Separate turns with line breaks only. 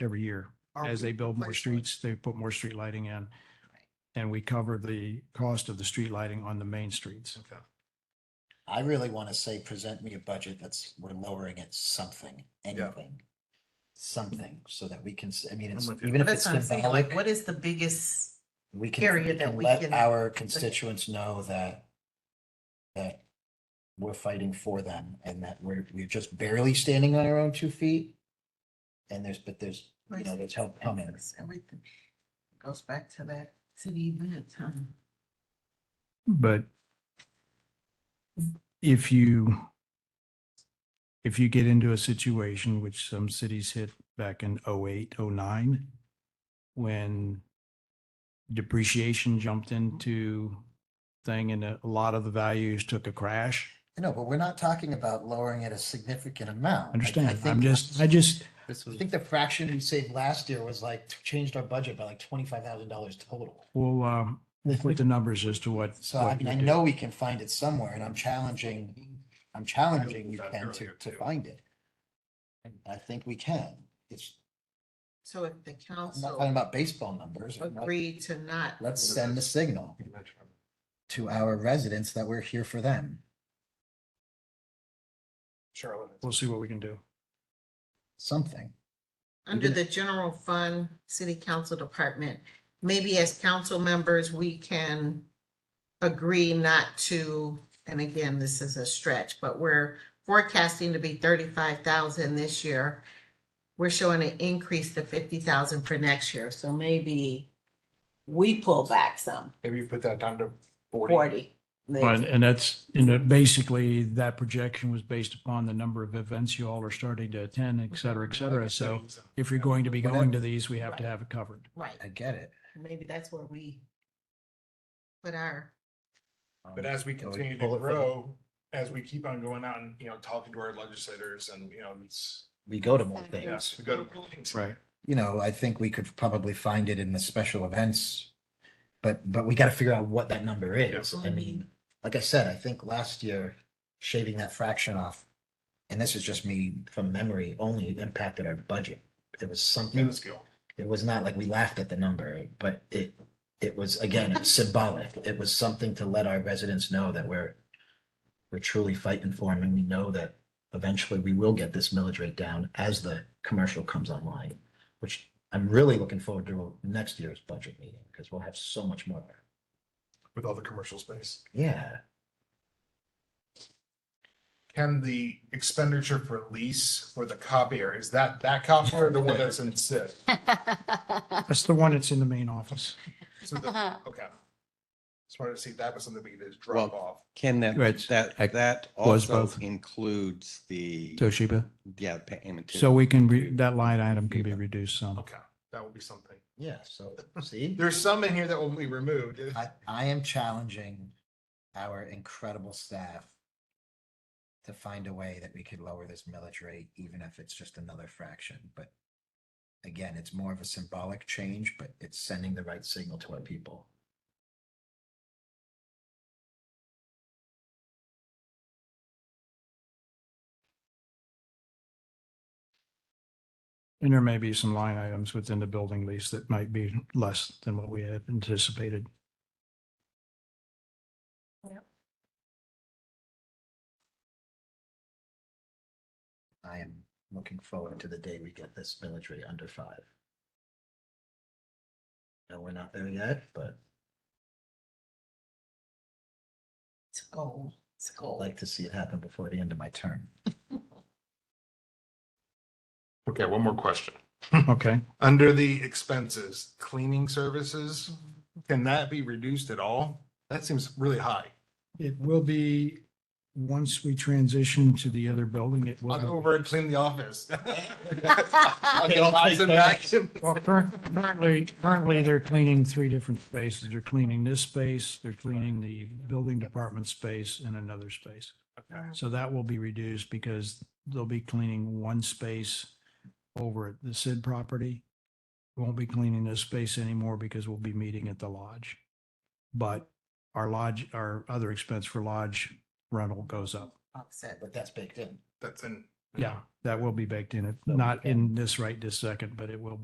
every year.
Oh,
Are
As
we-
they build more
replace
streets, they put more street lighting in. And we cover the cost of the street lighting on the main streets.
Okay.
I really want to say, present me a budget that's, we're lowering it something, anything. Something so that we can, s- I mean, it's,
I'm with you.
even if it's
That's what I'm saying, like, what
symbolic,
is the biggest,
we can, we
area that
can
we
let
can-
our constituents know that that we're fighting for them and that we're, we're just barely standing on our own two feet. And there's, but there's, you know, there's help coming.
everything goes back to that, to the event, huh?
Mm-hmm.
But if you, if you get into a situation which some cities hit back in 08, 09, when depreciation jumped into thing and a lot of the values took a crash.
No, but we're not talking about lowering it a significant amount. I- I
Understand? I'm
think-
just, I just,
I think the fraction we saved last year was like, changed our budget by like twenty-five thousand dollars total.
we'll, um, we'll put the numbers as to what.
So I
what
mean,
we
I
do.
know we can find it somewhere and I'm challenging, I'm challenging you
I looked at
Ken
that
to,
earlier,
to
too.
find it. I think we can. It's,
So if the
I'm not talking
council
about baseball numbers. I'm not-
agreed to not,
Let's send the signal to our residents that we're here for them.
Charlotte.
We'll see what we can do.
Something.
under the general fund, city council department, maybe as council members, we can agree not to, and again, this is a stretch, but we're forecasting to be thirty-five thousand this year. We're showing an increase to fifty thousand for next year, so maybe we pull back some,
Maybe you put that down to forty.
forty.
And, and that's, you know, basically that projection was based upon the number of events you all are starting to attend, et cetera, et cetera. So if you're going to be going to these, we have to have it covered.
Right,
I get it.
maybe that's where we put our,
But
Um,
as we continue to
Pull it from-
grow, as we keep on going out and, you know, talking to our legislators and, you know, it's,
We go to more
yeah,
things.
we go to meetings.
you know, I think we could probably find it in the special events. But, but we gotta figure out what that number is.
Yes.
I mean, like I said, I think last year shaving that fraction off. And this is just me from memory, only impacted our budget. It was something,
Minuscule.
it was not like we laughed at the number, but it, it was again it's symbolic. It was something to let our residents know that we're, we're truly fighting for them and we know that eventually we will get this millage rate down as the commercial comes online, which I'm really looking forward to next year's budget meeting because we'll have so much more.
With all the commercial space.
Yeah,
Can the expenditure for lease for the copier, is that that copier or the one that's in SID?
That's the one that's in the main office.
So the, okay. Just wanted to see if that was something we could just drop off.
Can that,
Right.
that, that
was
also
both.
includes the,
Toshiba.
yeah, payment. to-
So we can, re- that line item can be reduced some.
Okay, that would be something.
yeah, so see,
There's some in here that will be removed.
I, I am challenging our incredible staff to find a way that we could lower this millage rate, even if it's just another fraction, but again, it's more of a symbolic change, but it's sending the right signal to our people.
And there may be some line items within the building lease that might be less than what we had anticipated.
I am looking forward to the day we get this military under five. No, we're not there yet, but
it's a goal, it's a
I'd
goal.
like to see it happen before the end of my term.
Okay, one more question.
Okay.
Under the expenses, cleaning services, can that be reduced at all? That seems really high.
It will be, once we transition to the other building, it will.
I'll
be-
go over and clean the office. I'll
Okay, I'll
get lots
take
of
that.
action.
Well, cur- currently, currently they're cleaning three different spaces. They're cleaning this space, they're cleaning the building department space and another space. So that will be reduced because they'll be cleaning one space over at the Sid property. Won't be cleaning this space anymore because we'll be meeting at the lodge. But our lodge, our other expense for lodge rental goes up.
Offset.
But that's baked in.
That's in,
Yeah, that will be baked in, It's not in this right this second, but it will be.